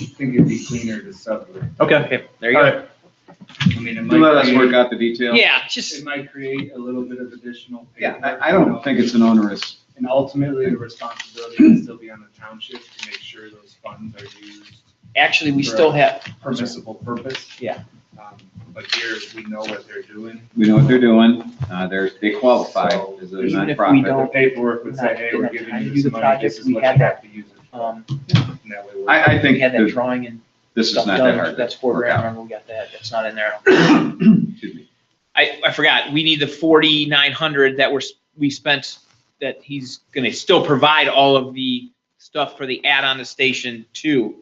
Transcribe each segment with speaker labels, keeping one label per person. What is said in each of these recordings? Speaker 1: I think it'd be cleaner to separate.
Speaker 2: Okay,
Speaker 3: Okay, there you
Speaker 2: all
Speaker 3: go.
Speaker 2: right,
Speaker 1: I mean, it might
Speaker 4: Let us work
Speaker 1: create,
Speaker 4: out the details.
Speaker 3: Yeah, just,
Speaker 1: it might create a little bit of additional.
Speaker 4: Yeah,
Speaker 1: paperwork,
Speaker 4: I, I
Speaker 1: you
Speaker 4: don't
Speaker 1: know,
Speaker 4: think it's an onerous,
Speaker 1: And ultimately, the responsibility would still be on the township to make sure those funds are used
Speaker 3: actually, we still have,
Speaker 1: for permissible purpose.
Speaker 3: Yeah.
Speaker 1: Um, But here, we know what they're doing.
Speaker 4: we know what they're doing, uh, they're, they qualify as a
Speaker 3: Even if we
Speaker 4: nonprofit.
Speaker 3: don't-
Speaker 1: The paperwork would say, hey, we're giving you this money, this is what you have to use it for.
Speaker 3: um,
Speaker 1: And that way we're-
Speaker 4: I, I
Speaker 3: we
Speaker 4: think
Speaker 3: had that
Speaker 4: that
Speaker 3: drawing and
Speaker 4: this is
Speaker 3: stuff
Speaker 4: not that
Speaker 3: done,
Speaker 4: hard.
Speaker 3: that's
Speaker 4: to
Speaker 3: four
Speaker 4: work
Speaker 3: grand,
Speaker 4: out.
Speaker 3: remember, we got that, that's not in there.
Speaker 4: Excuse me.
Speaker 3: I, I forgot, we need the forty-nine hundred that we're, s- we spent, that he's gonna still provide all of the stuff for the add-on to station two.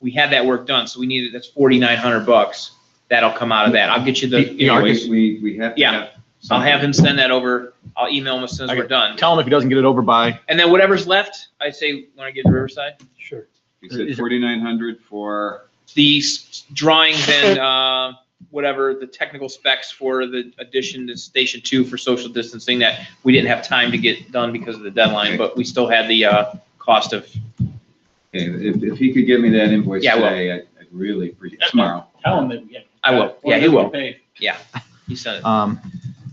Speaker 3: We had that work done, so we needed, that's forty-nine hundred bucks, that'll come out of that, I'll get you the, you know, I'll
Speaker 4: Anyways,
Speaker 3: get-
Speaker 4: we, we have to
Speaker 3: Yeah.
Speaker 4: have.
Speaker 3: I'll have him
Speaker 4: something.
Speaker 3: send that over, I'll email him as soon as we're done.
Speaker 2: tell him if he doesn't get it over by,
Speaker 3: And then whatever's left, I say, when I get to Riverside,
Speaker 5: Sure.
Speaker 4: You said forty-nine hundred for,
Speaker 3: the s- drawings and, uh, whatever, the technical specs for the addition to Station Two for social distancing that we didn't have time to get done because of the deadline, but we still had the, uh, cost of,
Speaker 4: okay, if, if he could give me that invoice
Speaker 3: Yeah, I will.
Speaker 4: today, I'd I'd really appreciate, tomorrow.
Speaker 5: Tell him that we get.
Speaker 3: I will,
Speaker 5: Well,
Speaker 3: yeah, he
Speaker 5: that's
Speaker 3: will,
Speaker 5: okay.
Speaker 3: he sent it.
Speaker 2: um,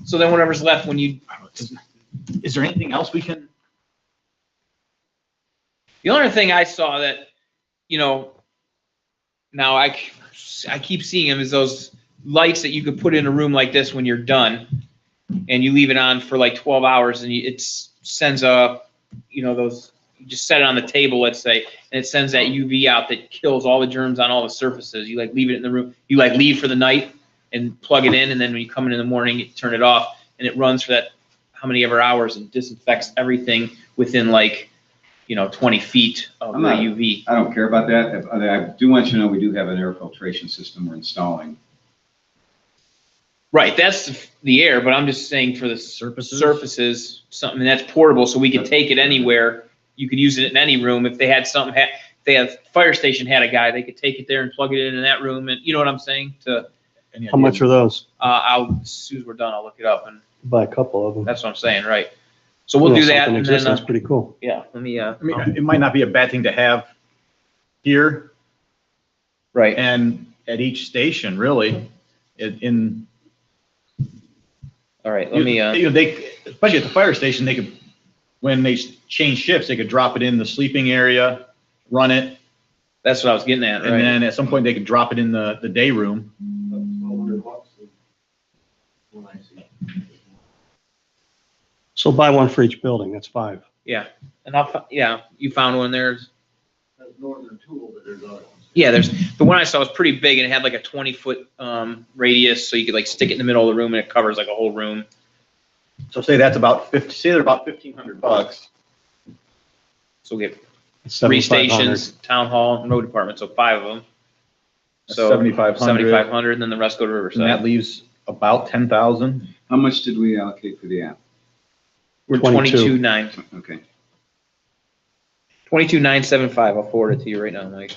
Speaker 3: So then whatever's left, when you,
Speaker 2: I don't know, is- is there anything else we can?
Speaker 3: the only thing I saw that, you know, now I, c- I keep seeing them is those lights that you could put in a room like this when you're done and you leave it on for like 12 hours and you- it s- sends a, you know, those, you just set it on the table, let's say, and it sends that UV out that kills all the germs on all the surfaces. You like leave it in the room, you like leave for the night and plug it in and then when you come in in the morning, you turn it off and it runs for that, how many ever hours and disinfects everything within like, you know, 20 feet of the
Speaker 4: I'm not-
Speaker 3: UV.
Speaker 4: I don't care about that. If- I do want you to know, we do have an air filtration system we're installing.
Speaker 3: Right, that's the air, but I'm just saying for the
Speaker 2: Surfaces?
Speaker 3: surfaces, something that's portable, so we can take it anywhere. You could use it in any room. If they had something, ha- if they had fire station had a guy, they could take it there and plug it in in that room, and you know what I'm saying? To, uh,
Speaker 2: any
Speaker 5: How much
Speaker 2: idea?
Speaker 5: are those?
Speaker 3: I'll as soon as we're done, I'll look it up, and
Speaker 5: Buy a couple of them.
Speaker 3: that's what I'm saying, right? So we'll do that, and then,
Speaker 5: That's
Speaker 3: uh,
Speaker 5: pretty cool.
Speaker 3: yeah, let me, uh,
Speaker 2: I mean, it might not be a bad thing to have here
Speaker 3: right,
Speaker 2: and at each station, really, in- in.
Speaker 3: all right, let me, uh,
Speaker 2: You know, they, especially at the fire station, they could, when they s- change shifts, they could drop it in the sleeping area, run it,
Speaker 3: that's what I was getting at,
Speaker 2: and
Speaker 3: right?
Speaker 2: then at some point they could drop it in the, the day room.
Speaker 5: So buy one for each building, that's five.
Speaker 3: And I'll, fi- yeah, you found one there,
Speaker 6: That's northern tool, but there's other ones.
Speaker 3: Yeah, there's, the one I saw was pretty big and it had like a twenty foot, um, radius, so you could like stick it in the middle of the room and it covers like a whole room.
Speaker 2: So say that's about fifty, say they're about fifteen hundred bucks.
Speaker 3: So we get
Speaker 5: That's
Speaker 3: three
Speaker 5: 7,500.
Speaker 3: stations, town hall, and road department, so five of them. So
Speaker 2: Seventy-five
Speaker 3: seventy-five
Speaker 2: hundred,
Speaker 3: hundred, and then the rest go to
Speaker 2: and that
Speaker 3: Riverside.
Speaker 2: leaves about ten thousand.
Speaker 4: How much did we allocate for the app?
Speaker 3: We're
Speaker 5: 22.
Speaker 3: twenty-two nine,
Speaker 4: Okay,
Speaker 3: twenty-two nine seven five, I'll forward it to you right now, Mike.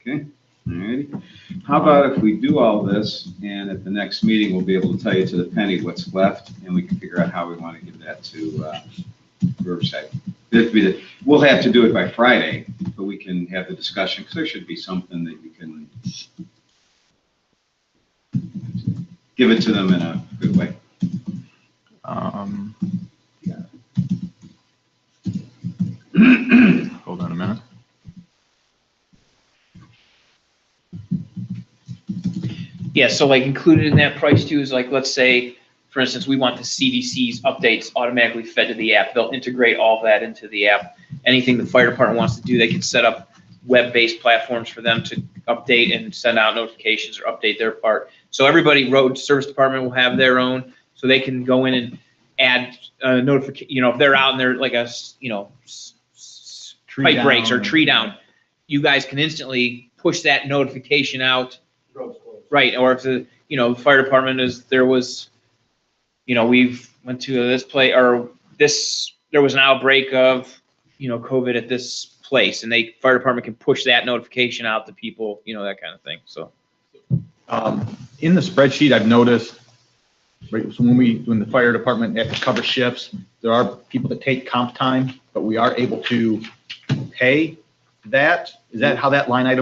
Speaker 4: okay, all righty. How about if we do all this, and at the next meeting, we'll be able to tell you to the penny what's left, and we can figure out how we want to give that to uh, Riverside. That'd be the- We'll have to do it by Friday, but we can have the discussion, because there should be something that you can give it to them in a good way.
Speaker 2: Um, Hold on a minute.
Speaker 3: Yeah, so like included in that price too is like, let's say, for instance, we want the CDC's updates automatically fed to the app. They'll integrate all that into the app. Anything the fire department wants to do, they can set up web-based platforms for them to update and send out notifications or update their part. So everybody, road service department will have their own, so they can go in and add uh notification, you know, if they're out and they're like a, s- you know, s- s- pipe breaks or tree down, you guys can instantly push that notification out
Speaker 6: Road's closed.
Speaker 3: Right, or if the, you know, the fire department is, there was, you know, we've went to this place, or this, there was an outbreak of, you know, COVID at this place, and they, fire department can push that notification out to people, you know, that kind of thing, so.
Speaker 2: Um, In the spreadsheet, I've noticed, right, so when we, when the fire department, they have to cover shifts, there are people that take comp time, but we are able to pay that. Is that how that line item